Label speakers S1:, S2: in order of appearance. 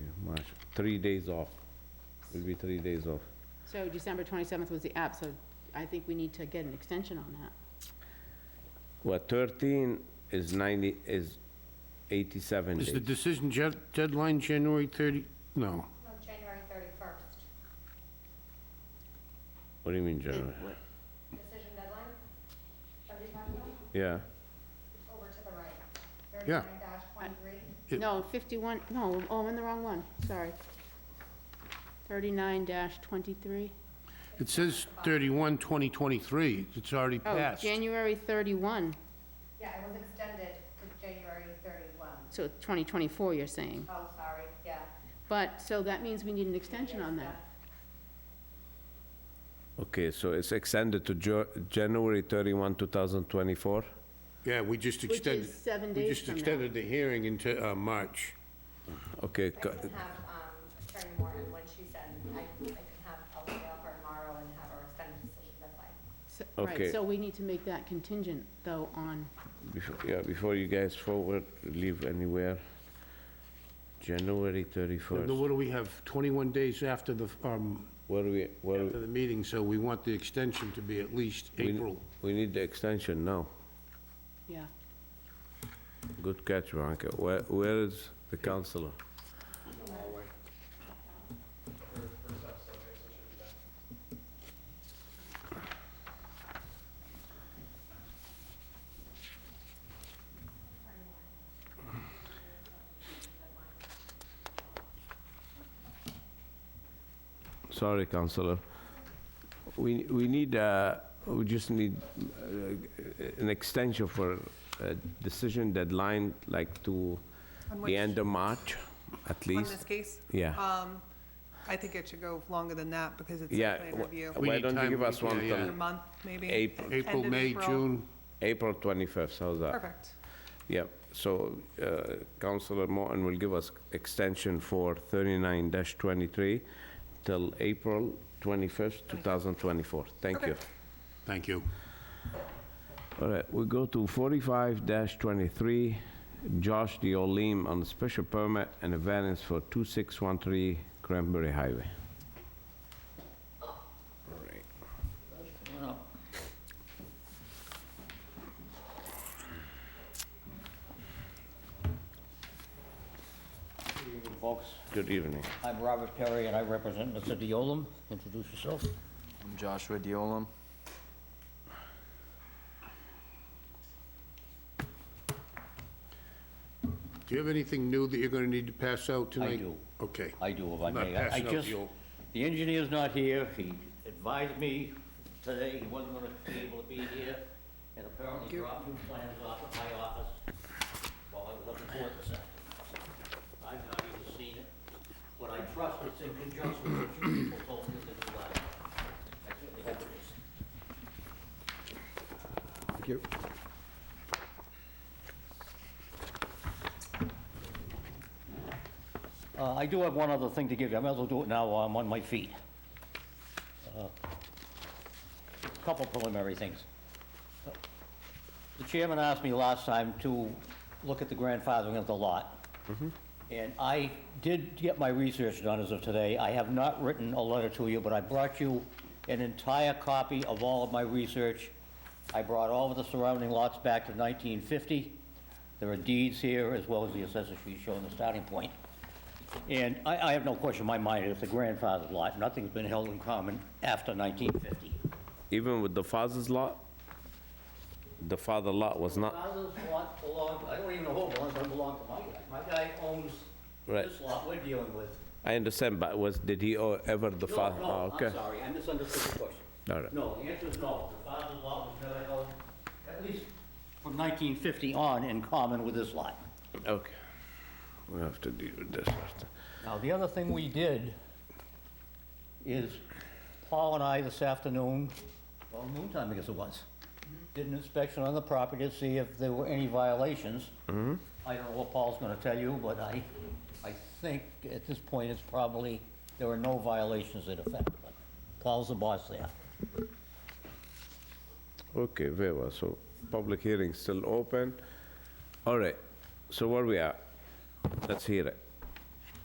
S1: three days off. Will be three days off.
S2: So December 27th was the app, so I think we need to get an extension on that.
S1: Well, 13 is 90, is 87
S3: Is the
S1: days.
S3: decision jet- deadline January 30? No.
S4: No, January 31st.
S1: What do you mean, January?
S4: Decision deadline? Are we talking about?
S1: Yeah,
S4: It's over to the right.
S3: Yeah.
S4: 39-23.
S3: It-
S2: No, 51, no, oh, I'm in the wrong one, sorry. 39-23.
S3: It says 31, 2023. It's already
S2: Oh,
S3: passed.
S2: January 31,
S4: Yeah, it was extended to January 31.
S2: so 2024, you're saying.
S4: Oh, sorry, yeah.
S2: But, so that means we need an extension on that.
S1: okay, so it's extended to Jo- January 31, 2024?
S3: Yeah, we just
S2: Which
S3: extended.
S2: is seven
S3: We
S2: days
S3: just
S2: from now.
S3: extended the hearing into uh, March.
S1: Okay,
S4: I
S1: co-
S4: can have um, Attorney Warren, when she sends, I I can have, I'll email her tomorrow and have her extend the decision deadline.
S2: So- Right,
S1: Okay.
S2: so we need to make that contingent, though, on,
S1: before- yeah, before you guys forward, leave anywhere, January
S3: Now,
S1: 31st.
S3: what do we have, 21 days after the, um,
S1: Where we, where,
S3: after the meeting, so we want the extension to be at least
S1: we-
S3: April.
S1: we need the extension now.
S2: yeah.
S1: Good catch, Veronica. Where, where is the counselor? Sorry, counselor. We, we need, uh, we just need uh, an extension for a decision deadline, like to
S5: On
S1: the
S5: which-
S1: end of March, at
S5: On
S1: least.
S5: this case?
S1: Yeah,
S5: Um, I think it should go longer than that because it's
S1: yeah.
S5: site plan
S1: wh-
S5: review.
S3: We
S1: Why
S3: need
S1: don't you
S3: time,
S1: give us
S3: yeah,
S1: one
S3: yeah.
S5: A
S1: till
S5: month, maybe?
S1: April.
S5: end
S3: April,
S5: of
S3: May,
S5: April.
S3: June.
S1: April 25th, how's that?
S5: Perfect.
S1: Yep, so uh, Councilor Morton will give us extension for 39-23 till April 21st, 2024. Thank
S5: Okay.
S1: you.
S3: Thank you.
S1: All right, we go to 45-23, Josh Diolim on special permit and a variance for 2613 Cranberry Highway.
S6: Folks,
S1: Good evening.
S6: I'm Robert Perry, and I represent Mr. Deolum. Introduce yourself.
S7: I'm Joshua Diolam.
S3: Do you have anything new that you're going to need to pass out tonight?
S6: do.
S3: Okay.
S6: I do, if I
S3: I'm not
S6: may. I- I
S3: passing out
S6: just-
S3: the old-
S6: The engineer's not here. He advised me today he wasn't going to be able to be here, and apparently dropped two plans off at my office while I was looking for it this afternoon. I've not even seen it, but I trust it's in conjunction with what you people told me to do last. night. I certainly hope it is. Uh, I do have one other thing to give you. I might as well do it now while I'm on my feet. Uh, Couple preliminary things. The chairman asked me last time to look at the grandfathering of the lot. And I did get my research done as of today. I have not written a letter to you, but I brought you an entire copy of all of my research. I brought all of the surrounding lots back to 1950. There are deeds here, as well as the assessor's sheet showing the starting point. And I, I have no question in my mind, it's a grandfathered lot, nothing's been held in common after 1950.
S1: Even with the father's lot? The father lot was not,
S6: Father's lot belonged, I don't even know who it belongs, but it belonged to my guy. My guy owns
S1: Right.
S6: this lot we're dealing with.
S1: I understand, but was, did he o- ever the
S6: No,
S1: father? oh,
S6: no,
S1: okay.
S6: I'm sorry, I misunderstood the question.
S1: All right.
S6: No, the answer is no, the father's lot was never held, at least from 1950 on, in common with this lot.
S1: Okay. We have to deal with this first.
S6: Now, the other thing we did is Paul and I this afternoon, well, noon time, I guess it was, did an inspection on the property to see if there were any violations. I don't know what Paul's gonna tell you, but I, I think at this point, it's probably, there were no violations that affected it. Paul's the boss there.
S1: Okay, very well, so public hearing still open. All right, so where we at? Let's hear it.